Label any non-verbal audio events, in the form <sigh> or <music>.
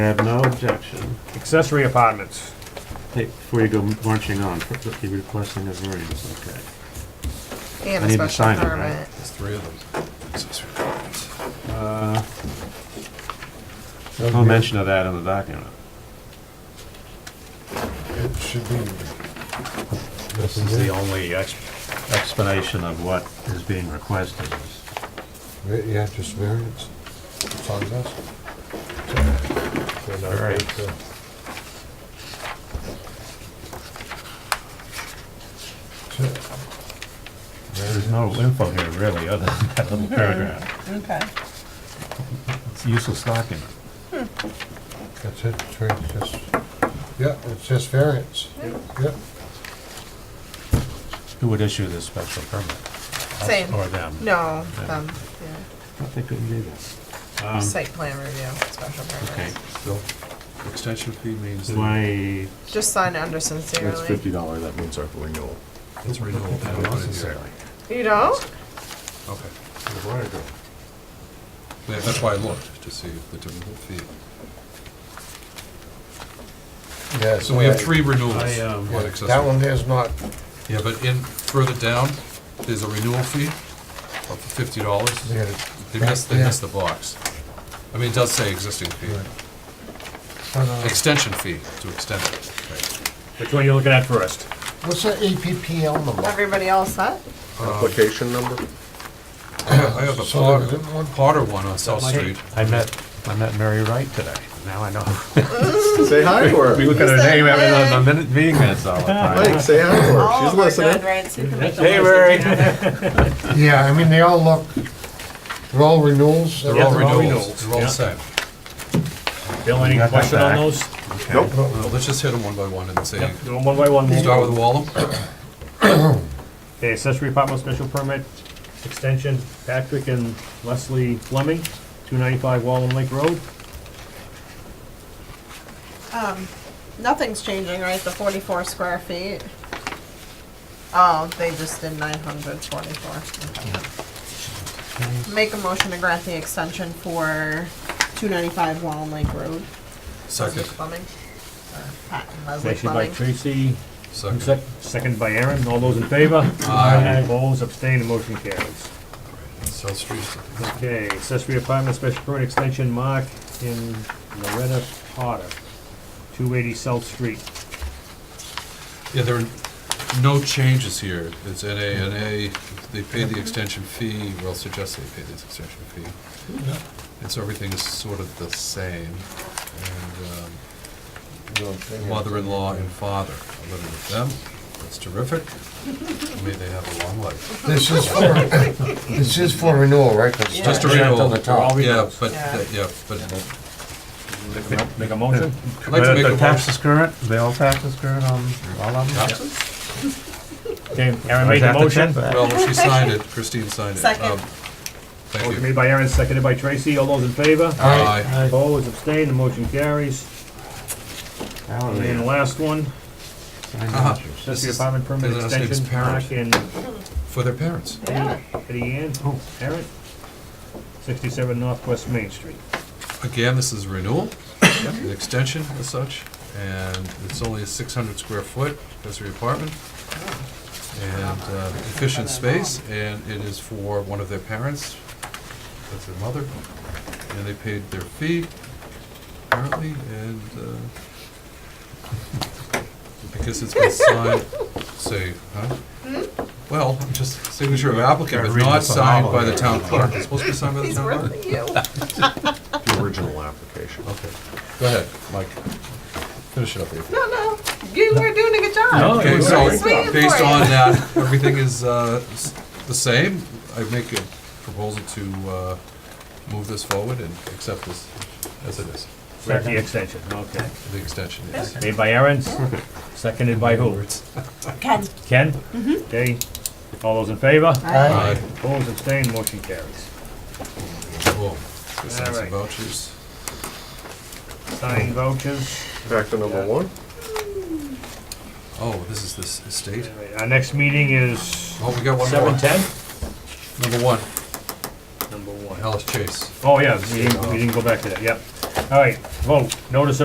I have no objection. Accessory apartments. Hey, before you go marching on, you're requesting a variance, okay. They have I a need to special sign it, right? permit. There's three of them. Uh, No mention of that in the document. It should be, This is the only ex- explanation of what is being requested. yeah, just variance. It's on this. All right. There's no info here really, other than that little paragraph. Okay. It's a useless document. That's it, it's right, just, yeah, it's just variance. Yep. Who would issue this special permit? Us Same. Or them? No, Yeah. um, I think we can do that. yeah, Um, site plan review, special Okay, permit. So, extension fee means. that- why, Just sign it under That's sincerely. fifty dollar, that means our renewal. It's renewal. I don't want it here. You don't? Okay, Yeah, that's why I looked, to see the typical fee. Yeah. So we have three renewals I, um, on accessory. That one there's not, Yeah, but in, further down, there's a renewal fee of fifty dollars. They missed, they missed the box. I mean, it does say existing fee, extension fee to extend it. Which one are you looking at first? what's the APPL number? Everybody else set? application number? I have a So there Potter, isn't one? Potter one on South Street. I met, I met Mary Wright today, now I know. <laughs> Say hi to We her. look at her name every, on the minute, meeting minutes all the time. Mike, say hi to her. She's listening. Hey, Mary. Yeah, I mean, they all look, they're all renewals. They're Yeah, all they're all renewals, renewals, they're all yeah. the same. Bill, any You got that question on back. those? Nope. Well, let's just hit them one by one and say, Yep, do them one by one. start with Wallem. Okay, accessory apartment special permit extension, Patrick and Leslie Fleming, 295 Wallen Lake Road. Um, nothing's changing, right? The forty-four square feet? Oh, they just did nine hundred forty-four. Make a motion to grant the extension for two ninety-five Wallen Lake Road. Second, Plumbing. Or Pat and Leslie Motion by Plumbing. Tracy, second. sec- second by Aaron. All those in favor? Aye. Opposed, abstained, the motion carries. South Street. Okay, accessory apartment special permit extension, Mark in Loretta Potter, 280 South Street. Yeah, there are no changes here. It's NA, NA, they paid the extension fee, well, suggest they paid the extension fee. And so everything is sort of the same. And um, mother-in-law and father are living with them. That's terrific. May they have a long life. This is for, <laughs> this is for renewal, right? 'Cause it's Just a not checked renewal. on the top. Yeah, but, uh, Yeah. yeah, but Make a motion? I'd like to make The a motion. taxes current, the old taxes current on all of them? Okay, Aaron made Is the that motion. check? Well, she signed it, Christine signed it. Second. Um, Thank Motion you. made by Aaron, seconded by Tracy. All those in favor? Aye. Opposed, abstained, the motion carries. And then the Hallelujah. last one, Uh-huh. This accessory is- apartment permit his last name's extension, Parent. Mark and For their parents. Eddie Ann, oh, Parent, sixty-seven Northwest Main Street. Again, this is renewal, an extension as such, and it's only a six hundred square foot accessory apartment. And uh, efficient space, and it is for one of their parents, that's their mother, and they paid their fee, apparently, and uh, because it's been signed, say, huh? Well, I'm just signature of applicant, but Gotta read not this on signed all by of the it. town clerk, it's supposed to be signed by the He's town clerk. worth you. The original application. Okay, go ahead, Mike. Finish it up here. No, no, you were doing a good job. Okay, We're so swinging for based you. on that, everything is uh, s- the same. I make a proposal to uh, move this forward and accept this as it is, Start the extension, okay. the extension is. Made by Aaron, seconded by who? Ken. Ken? Okay, all those in favor? Aye. Opposed, abstained, motion carries. Boom. Let's go Sign some Alright. vouchers. Sign vouchers. Back to number one. Oh, this is this estate. All right, Our next meeting is Oh, we got one more. seven ten, Number one, number one. Alice Chase. Oh, yeah, we didn't, we didn't go back to that, yep. All right, Vote, notice of